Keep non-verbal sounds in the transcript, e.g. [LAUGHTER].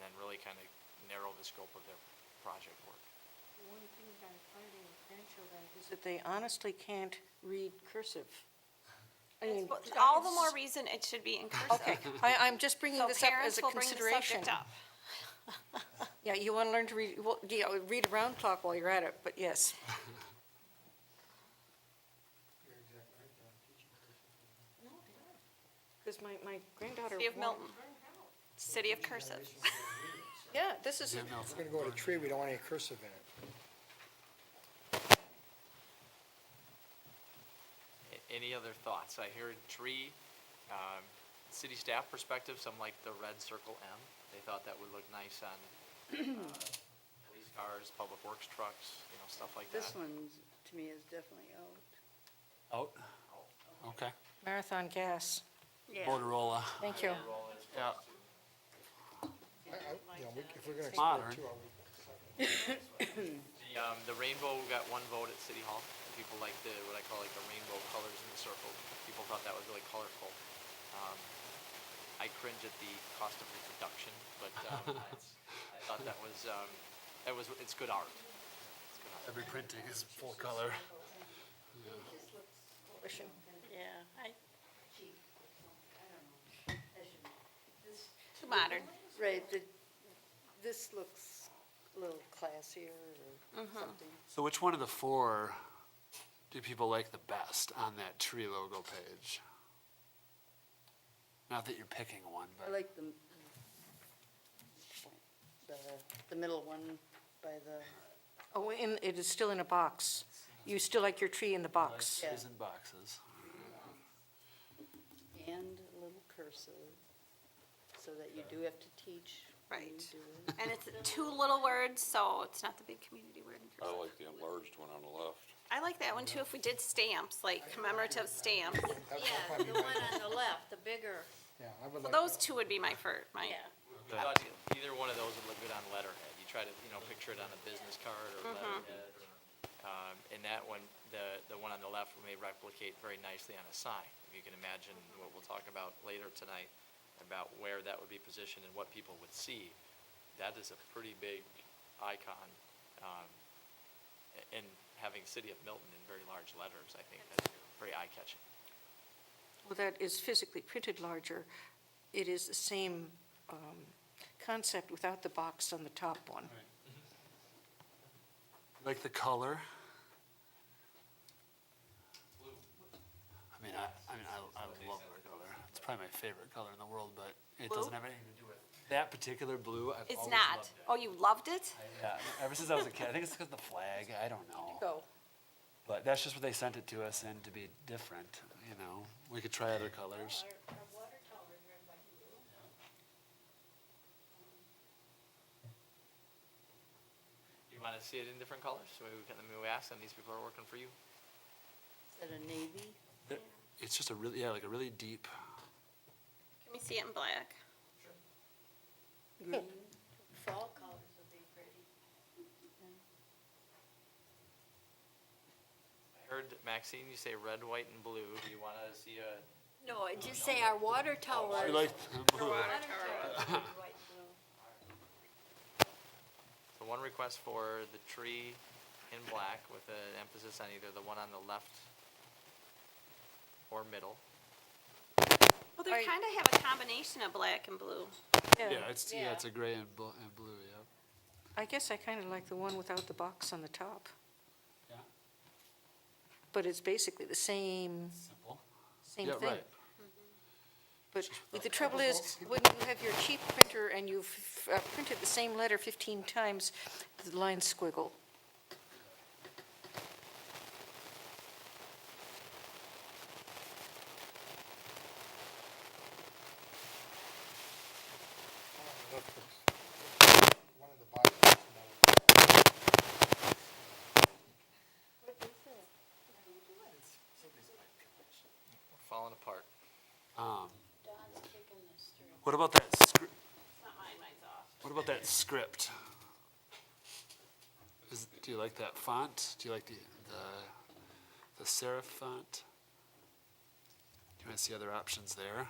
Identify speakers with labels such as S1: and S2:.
S1: kind of narrow the scope of their project work.
S2: One thing that I'm finding with grandchildren is that they honestly can't read cursive. I mean,
S3: Well, All the more reason it should be in cursive.
S2: Okay, [LAUGHS] I, I'm just bringing
S3: So
S2: this up as
S3: parents
S2: a
S3: will bring the
S2: consideration.
S3: subject up.
S2: Yeah, you want to learn to read, well, yeah, read a round clock while you're at it, but yes.
S4: You're exactly right, they're not teaching
S2: Because
S4: cursive.
S2: my, my granddaughter.
S3: City of
S2: won't-
S3: Milton. City of cursive. [LAUGHS]
S2: Yeah, this is,
S4: If we're gonna go to tree, we don't want any cursive in it.
S1: A- Any other thoughts? I hear tree, um, city staff perspective, some like the red circle M. They thought that would look nice on, uh, police cars, public works trucks, you know, stuff like that.
S5: This one, to me, is definitely out.
S6: Out? Okay.
S2: marathon gas.
S6: Borderola.
S2: Thank you.
S1: Yeah,
S4: I, I, you know, we- if we're gonna
S6: Modern.
S4: export to, are we,
S1: the, um, the rainbow got one vote at City Hall. People liked the, what I call like the rainbow colors in the circle. People thought that was really colorful. Um, I cringe at the cost of reproduction, but, um, it's- I thought that was, um, that was, it's good art. It's good art.
S6: Every printing is full color.
S5: Yeah, I,
S3: Too modern.
S5: right, the, this looks a little classier or something.
S6: So which one of the four do people like the best on that tree logo page? Not that you're picking one,
S5: I
S6: but
S5: like the, the, the middle one by the,
S2: Oh, and it is still in a box. You still like your tree in the box.
S6: trees in boxes.
S5: and a little cursive, so that you do have to teach. when you
S3: Right.
S5: do it. [LAUGHS]
S7: [LAUGHS]
S3: And it's two little words, so it's not the big community word in
S8: I
S3: cursive.
S8: like the enlarged one on the left.
S3: I like that one too, if we did stamps, like commemorative stamps.
S4: that's
S7: Yeah,
S4: probably
S7: the
S4: my,
S7: one on the left, the bigger,
S4: yeah, I would
S3: Well,
S4: like.
S3: Those two would be my first, my,
S7: yeah.
S1: I thought e- either one of those would look good on letterhead. You try to, you know, picture it on a business card or letterhead. or, Um, and that one, the, the one on the left may replicate very nicely on a sign. If you can imagine what we'll talk about later tonight, about where that would be positioned and what people would see, that is a pretty big icon. Um, a- and having City of Milton in very large letters, I think that's very eye-catching.
S2: Well, that is physically printed larger. It is the same um, concept without the box on the top one.
S6: Like the color? I mean, I, I mean, I, I love that color. It's probably my favorite color in the world, but it doesn't
S3: Blue?
S6: have anything to do with that particular blue. I've
S3: it's
S6: always
S3: not.
S6: loved it.
S3: Oh, you loved it?
S6: Yeah, ever since I was a kid, I think it's because of the flag. I don't know. But that's just what they sent it to us, and to be different, you know, we could try other colors.
S1: You wanna see it in different colors? So we can, we ask them, these people are working for you.
S5: Is that a navy?
S6: It- It's just a really, yeah, like a really deep.
S3: Can we see it in black?
S5: Green.
S7: Fall colors would be pretty.
S1: I heard Maxine, you say red, white, and blue. Do you want to see a?
S7: No, I just say our water tower.
S6: [LAUGHS] like
S7: Water tower. White and [LAUGHS] blue.
S1: So one request for the tree in black with an emphasis on either the one on the left or middle.
S3: Well, they
S2: Are you-
S3: kind of have a combination of black and blue.
S6: Yeah, it's, yeah,
S7: Yeah.
S6: it's a gray and blue, and blue, yeah.
S2: I guess I kind of like the one without the box on the top.
S6: Yeah.
S2: But it's basically the same,
S6: Simple.
S2: same
S6: Yeah,
S2: thing.
S6: right.
S2: But the trouble is, when you have your cheap printer and you've uh, printed the same letter 15 times, the lines squiggle.
S4: One of the boxes, another.
S1: We're falling apart.
S6: Um,
S7: Don's kicking this through.
S6: what about that script,
S3: It's not mine, mine's off.
S6: what about that script? Is, do you like that font? Do you like the, the, the serif font? Do you want to see other options there?